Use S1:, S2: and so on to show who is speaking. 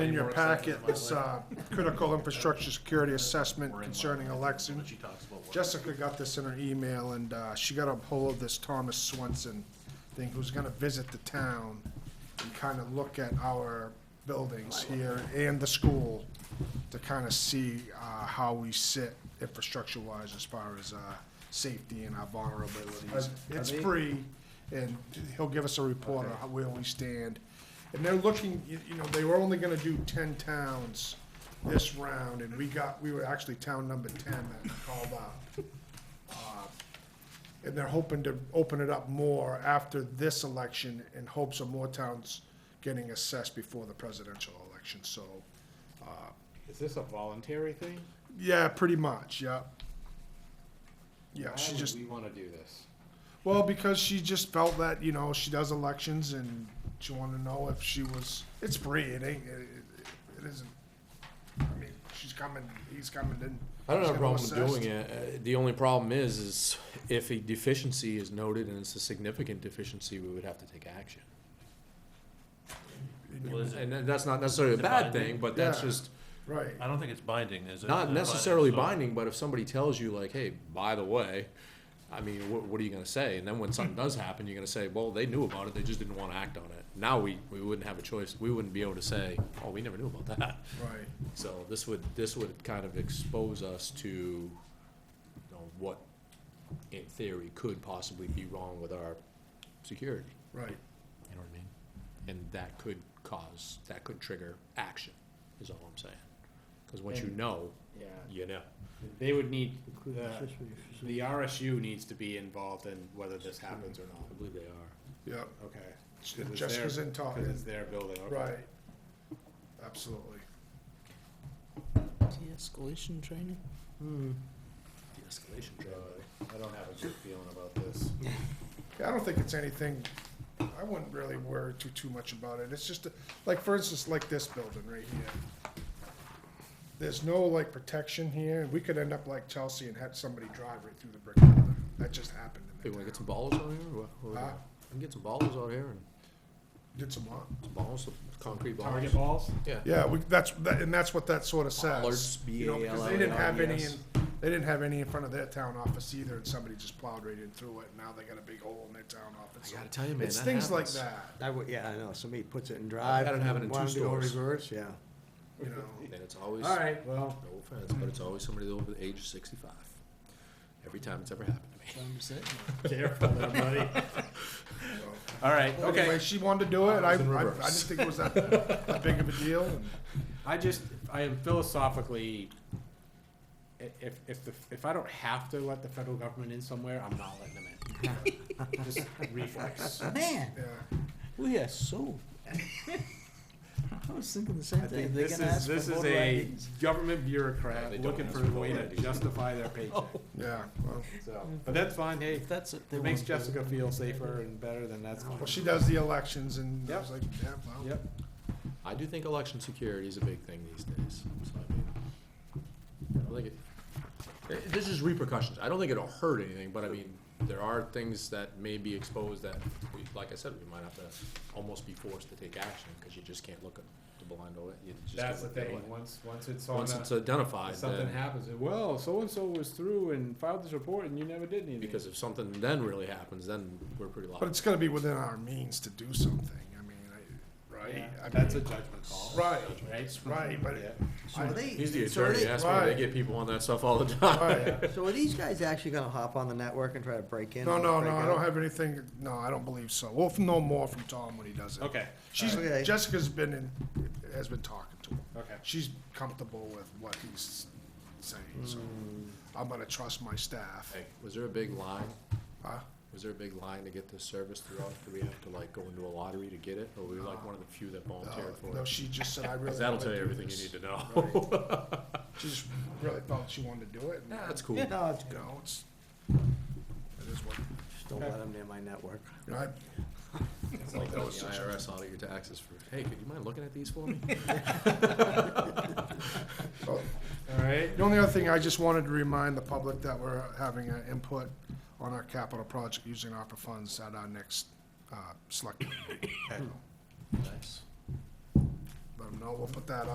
S1: In your packet is uh, critical infrastructure security assessment concerning election. Jessica got this in her email, and uh, she got a hold of this Thomas Swenson thing, who's gonna visit the town and kind of look at our buildings here and the school to kind of see uh, how we sit infrastructure-wise as far as uh, safety and our vulnerabilities.
S2: Are- are
S1: It's
S2: they-
S1: free, and he'll give us a report on how- where we stand. And they're looking, you you know, they were only gonna do ten towns this round, and we got, we were actually town number ten that called out. Uh, And they're hoping to open it up more after this election in hopes of more towns getting assessed before the presidential election, so,
S2: Is this a voluntary thing?
S1: yeah, pretty much, yeah. Yeah, she just.
S2: Why would we wanna do this?
S1: Well, because she just felt that you know she does elections and she wanted to know if she was. It's free. It ain't. It, it, it isn't. I mean, she's coming. He's coming in.
S3: I don't
S1: she's
S3: have a
S1: gonna
S3: problem
S1: assess.
S3: doing it. Uh, The only problem is, is if a deficiency is noted and it's a significant deficiency, we would have to take action. And that- that's not necessarily a
S4: it
S3: bad
S4: binding?
S3: thing, but that's
S1: Yeah.
S3: just
S1: Right.
S4: I don't think it's binding, is it?
S3: not
S4: Is it
S3: necessarily
S4: so-
S3: binding, but if somebody tells you like, hey, by the way, I mean, what, what are you gonna say? And then when something does happen, you're gonna say, well, they knew about it, they just didn't wanna act on it. Now we, we wouldn't have a choice. We wouldn't be able to say, oh, we never knew about that.
S1: Right.
S3: So this would, this would kind of expose us to, you know, what in theory could possibly be wrong with our security,
S1: Right.
S3: you know what I mean? And that could cause, that could trigger action, is all I'm saying. Cause once you
S2: And-
S3: know,
S2: Yeah,
S3: you know.
S2: they would need, the, the RSU needs to be involved in whether this happens or
S3: I
S2: not,
S3: believe they are.
S1: Yeah.
S2: okay? 'Cause it's
S1: Jessica's
S2: their-
S1: in talk.
S2: Cause it's their building, okay.
S1: Right. Absolutely.
S5: De-escalation training?
S3: De-escalation
S2: Uh, I don't have a good feeling about this.
S1: Yeah, I don't think it's anything. I wouldn't really worry too too much about it. It's just a- like, for instance, like this building right here. There's no like protection here. We could end up like Chelsea and had somebody drive right through the brick building. That just happened
S3: Hey,
S1: in
S3: wanna
S1: the
S3: get
S1: town.
S3: some balls out here? What- what we
S1: Huh?
S3: got? We Can get some balls out here and
S1: Did some what?
S3: some balls, some concrete balls?
S2: Target balls?
S3: Yeah.
S1: Yeah, we, that's that, and that's what that sort of says.
S3: Bollards,
S1: You know, because they didn't have any. In,
S3: B
S1: they didn't have any in front of their town office either, and somebody just plowed right in through it. and Now they got a big hole in their town office.
S3: I gotta tell you, man,
S1: it's
S3: that
S1: things
S3: happens.
S1: like that.
S5: I would, yeah, I know, somebody puts it in drive.
S3: Had it happen in two
S5: wanted to go
S3: stores.
S5: Reverse, yeah.
S1: You know.
S3: And it's always, no
S2: Alright, well,
S3: offense, but it's always somebody over the age of sixty-five. Every time it's ever happened to me.
S2: careful there, buddy. Alright,
S1: Anyway,
S2: okay,
S1: she wanted to do it. I, I, I
S3: It's in
S1: didn't
S3: reverse.
S1: think it was that, that big of a deal. and-
S2: I just, I am philosophically, i- if, if, the if I don't have to let the federal government in somewhere, I'm not letting them in. Just reflex.
S5: Man,
S1: Yeah,
S5: we are so. I was thinking the same
S2: I
S5: thing,
S2: think
S5: they're
S2: this
S5: gonna
S2: is,
S5: ask for
S2: this is
S5: voter
S2: a
S5: IDs.
S2: government
S3: Yeah, they
S2: bureaucrat
S3: don't
S2: looking
S3: ask
S2: for
S3: for
S2: a way
S3: voter
S2: to
S3: IDs.
S2: justify their paycheck,
S1: yeah. Well,
S2: so, but that's fine, hey,
S5: If that's it, they
S2: it makes
S5: want to do it.
S2: Jessica feel safer and better, then that's fine.
S1: well, she does the elections, and I
S2: Yep.
S1: was like, yeah, well,
S2: Yep,
S3: I do think election security is a big thing these days, so I mean, I don't think it, eh, this is repercussions, I don't think it'll hurt anything, but I mean, there are things that may be exposed that, we, like I said, we might have to almost be forced to take action, cause you just can't look at the blind eye, you just can't
S2: that's the
S3: look the other
S2: thing,
S3: way.
S2: once, once it's on
S3: Once
S2: a,
S3: it's
S2: if
S3: identified,
S2: something
S3: then,
S2: happens, it- well, so-and-so was through and filed this report and you never did anything.
S3: because if something then really happens, then we're pretty
S1: but
S3: liable.
S1: it's gonna be within our means to do something. I mean, I, right?
S2: Yeah,
S1: I
S2: That's a
S1: mean,
S2: judgment call.
S1: right,
S2: Right?
S1: right. But
S2: Yeah.
S5: So are they?
S3: He's the
S5: so are
S3: attorney,
S5: they-
S3: that's why they
S1: Right.
S3: get people on that stuff all the time.
S1: right.
S5: So are these guys actually gonna hop on the network and try to break in?
S1: No,
S5: and
S1: no,
S5: break
S1: no. I
S5: out?
S1: don't have anything. No, I don't believe so. We'll know more from Tom when he does it.
S2: Okay,
S1: She's
S5: Okay.
S1: Jessica's been in, has been talking to him.
S2: okay.
S1: She's comfortable with what he's saying, so
S5: Hmm.
S1: I'm gonna trust my staff.
S3: Hey, Was there a big line?
S1: Huh?
S3: Was there a big line to get this service throughout? Do we have to like go into a lottery to get it? Or were we like one of the few that volunteered
S1: No,
S3: for
S1: Uh, No,
S3: it?
S1: she just said, I really.
S3: Cause that'll
S1: wanna
S3: tell you
S1: do
S3: everything you
S1: this."
S3: need to know.
S1: She just really felt she wanted to do it, and,
S3: Nah, That's
S1: you
S3: cool.
S5: Yeah, No, it's good.
S1: know, it's, it is what,
S5: Just don't let them near my network.
S1: you know, I,
S3: It's like when the IRS audit your taxes for, hey, could you mind looking at these for me?
S1: oh,
S2: All right.
S1: The only other thing, I just wanted to remind the public that we're having an input on our capital project using ARPA funds at our next, uh, select. meeting.
S3: Nice.
S1: But don't know, we'll put that